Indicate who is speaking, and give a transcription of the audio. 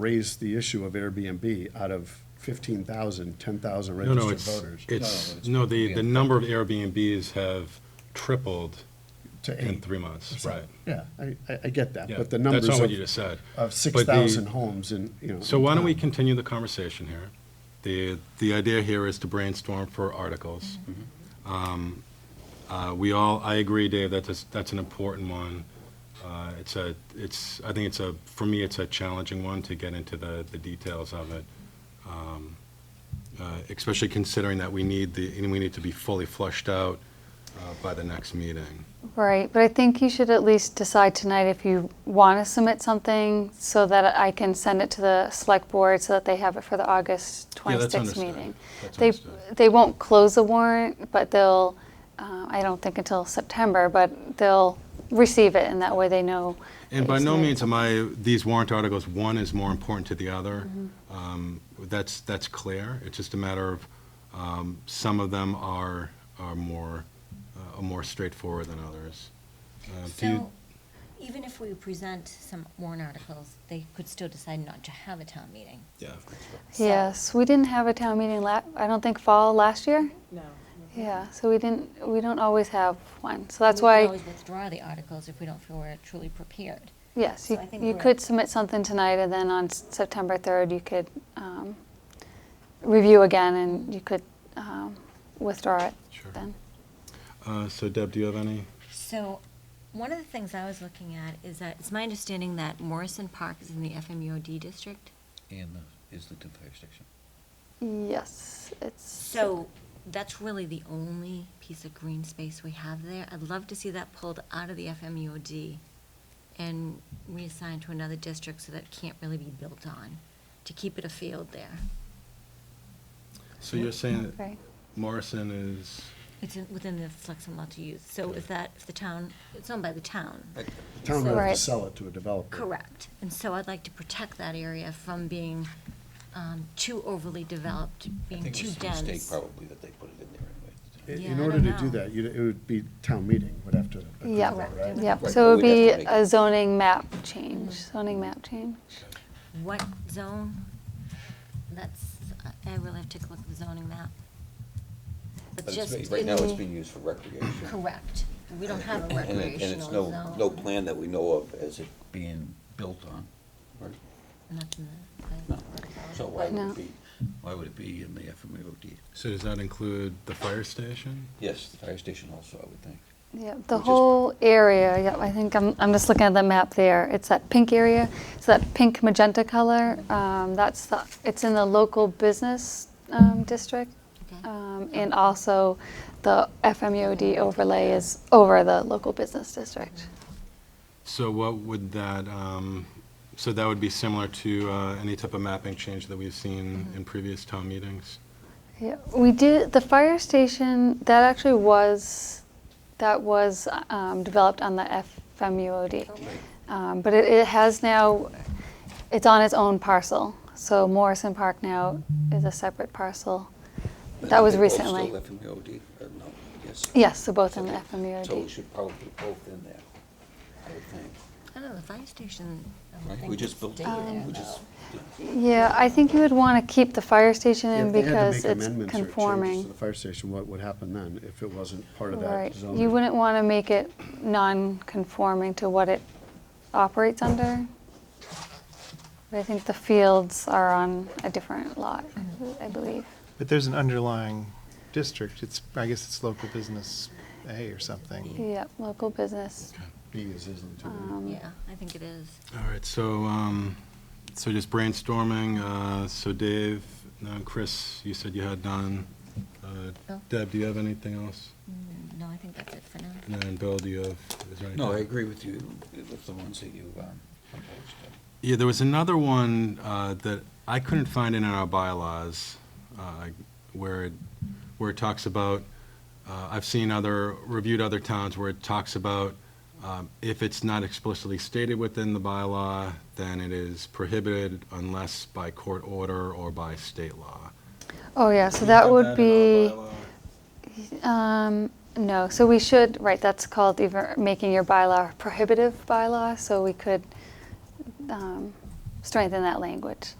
Speaker 1: raise the issue of Airbnb out of 15,000, 10,000
Speaker 2: No, no,
Speaker 1: registered
Speaker 2: it's,
Speaker 1: voters
Speaker 2: it's,
Speaker 3: it's-
Speaker 2: no, the, the number of Airbnbs have tripled
Speaker 1: to
Speaker 2: in
Speaker 1: eight.
Speaker 2: three months, right?
Speaker 1: Yeah, I, I- I get that,
Speaker 2: Yeah,
Speaker 1: but the
Speaker 2: That's
Speaker 1: numbers
Speaker 2: not what you
Speaker 1: of,
Speaker 2: just said.
Speaker 1: of
Speaker 2: But the-
Speaker 1: 6,000 homes in, you know.
Speaker 2: So why don't we
Speaker 1: in town.
Speaker 2: continue the conversation here? The, the idea here is to brainstorm for articles. Um, uh, We all, I agree, Dave, that's, that's an important one. Uh, It's a, it's, I think it's a, for me, it's a challenging one to get into the, the details of it. Um, uh, Especially considering that we need the, and we need to be fully flushed out uh, by the next meeting.
Speaker 4: Right, but I think you should at least decide tonight if you want to submit something so that I can send it to the select board so that they have it for the August
Speaker 2: Yeah, that's
Speaker 4: 26th
Speaker 2: understood.
Speaker 4: meeting.
Speaker 2: That's
Speaker 4: They,
Speaker 2: understood.
Speaker 4: they won't close the warrant, but they'll, uh, I don't think until September, but they'll receive it and that way they know. that
Speaker 2: And
Speaker 4: you
Speaker 2: by no
Speaker 4: submitted
Speaker 2: means
Speaker 4: something.
Speaker 2: am I, these warrant articles, one is more important to the other. Um, That's, that's clear. It's just a matter of, um, some of them are, are more, uh, are more straightforward than others. Uh, do you-
Speaker 5: So, even if we present some warrant articles, they could still decide not to have a town meeting. So-
Speaker 4: Yes, we didn't have a town meeting la, I don't think fall last year?
Speaker 6: No.
Speaker 4: Yeah, so we didn't, we don't always have one. So that's
Speaker 5: We can
Speaker 4: why.
Speaker 5: always withdraw the articles if we don't feel we're truly prepared.
Speaker 4: Yes,
Speaker 5: So
Speaker 4: you,
Speaker 5: I think
Speaker 4: you
Speaker 5: we're-
Speaker 4: could submit something tonight, and then on S- September 3rd, you could um, review again, and you could um, withdraw it
Speaker 2: Sure.
Speaker 4: then.
Speaker 2: uh, So Deb, do you have any?
Speaker 5: So, one of the things I was looking at is that, it's my understanding that Morrison Park is in the FMUOD district.
Speaker 3: And the Islington Fire Station.
Speaker 4: Yes, it's.
Speaker 5: So, that's really the only piece of green space we have there. I'd love to see that pulled out of the FMUOD and reassigned to another district so that it can't really be built on, to keep it a field there.
Speaker 2: So you're saying that
Speaker 4: Okay.
Speaker 2: Morrison is,
Speaker 5: It's in- within the flexible lot to use, so is that, if the town, it's owned by the town.
Speaker 1: The Town would have to
Speaker 4: Right.
Speaker 1: sell it to a developer.
Speaker 5: Correct, and so I'd like to protect that area from being um, too overly developed,
Speaker 3: I
Speaker 5: being
Speaker 3: think
Speaker 5: too
Speaker 3: it's a
Speaker 5: dense.
Speaker 3: mistake probably that they put it in there anyway.
Speaker 1: I-
Speaker 5: Yeah,
Speaker 1: In
Speaker 5: I
Speaker 1: order
Speaker 5: don't
Speaker 1: to do
Speaker 5: know.
Speaker 1: that, you'd- it would be town meeting would have to approve
Speaker 4: Yep,
Speaker 1: it, right?
Speaker 4: yep.
Speaker 3: Right,
Speaker 4: So it would
Speaker 3: but we'd
Speaker 4: be
Speaker 3: have to make-
Speaker 4: a zoning map change, zoning map change.
Speaker 5: What zone? That's, I- I really have to take a look at the zoning map.
Speaker 3: But it's
Speaker 5: just
Speaker 3: being- Right
Speaker 5: in
Speaker 3: now, it's
Speaker 5: the-
Speaker 3: being used for recreation.
Speaker 5: Correct, we don't have a
Speaker 3: And it- And
Speaker 5: recreational
Speaker 3: it's
Speaker 5: zone.
Speaker 3: no, no plan that we know of as it being built on. right?
Speaker 5: Not in the plan.
Speaker 3: No. So why would
Speaker 4: No.
Speaker 3: it be, why would it be in the FMUOD?
Speaker 2: so does that include the fire station?
Speaker 3: Yes, the fire station also, I would think.
Speaker 4: Yep, the
Speaker 3: Which is-
Speaker 4: whole area, yep, I think, I'm, I'm just looking at the map there. It's that pink area, so that pink magenta color, um, that's the, it's in the local business um, district.
Speaker 5: Okay.
Speaker 4: Um, And also, the FMUOD overlay is over the local business district.
Speaker 2: So what would that, um, so that would be similar to uh, any type of mapping change that we've seen in previous town meetings?
Speaker 4: Yeah, we did, the fire station, that actually was, that was um, developed on the FMUOD. Um, But it, it has now, it's on its own parcel, so Morrison Park now is a separate parcel.
Speaker 3: But
Speaker 4: That
Speaker 3: are
Speaker 4: was
Speaker 3: they both
Speaker 4: recently.
Speaker 3: Still FMUOD, or Uh, no, yes.
Speaker 4: Yes, so both in the E
Speaker 3: Okay. So we
Speaker 4: FMUOD.
Speaker 3: should probably put both in there, I would think.
Speaker 5: I don't know, the fire station, I don't
Speaker 3: Right?
Speaker 5: think
Speaker 3: We
Speaker 5: would
Speaker 3: just built,
Speaker 5: stay there,
Speaker 3: we just,
Speaker 5: though.
Speaker 4: Yeah, I think you would want to keep the fire station
Speaker 1: Yeah,
Speaker 4: in
Speaker 1: If they had to
Speaker 4: because
Speaker 1: make
Speaker 4: it's
Speaker 1: amendments or changes to
Speaker 4: conforming.
Speaker 1: the fire station, what would happen then if it wasn't part of that
Speaker 4: Right,
Speaker 1: zone?
Speaker 4: you wouldn't want to make it non-conforming to what it operates under. But I think the fields are on a different lot, I believe.
Speaker 7: But there's an underlying district, it's, I guess it's local business A or something.
Speaker 4: Yep, local business.
Speaker 1: B is Islington.
Speaker 4: um,
Speaker 5: Yeah, I think it is.
Speaker 2: All right, so, um, so just brainstorming, uh, so Dave, no, Chris, you said you had none. Uh,
Speaker 5: Bill?
Speaker 2: Deb, do you have anything else?
Speaker 5: Mm, No, I think that's it for now.
Speaker 2: And then Bill, do you have, is there anything?
Speaker 3: no, I agree with you, with the ones that you, um, proposed.
Speaker 2: Yeah, there was another one uh, that I couldn't find in our bylaws, uh, where it, where it talks about, uh, I've seen other, reviewed other towns where it talks about um, if it's not explicitly stated within the bylaw, then it is prohibited unless by court order or by state law.
Speaker 4: Oh, yeah, so that would be, um, no, so we should, right, that's called either making your bylaw prohibitive bylaw, so we could um, strengthen that language.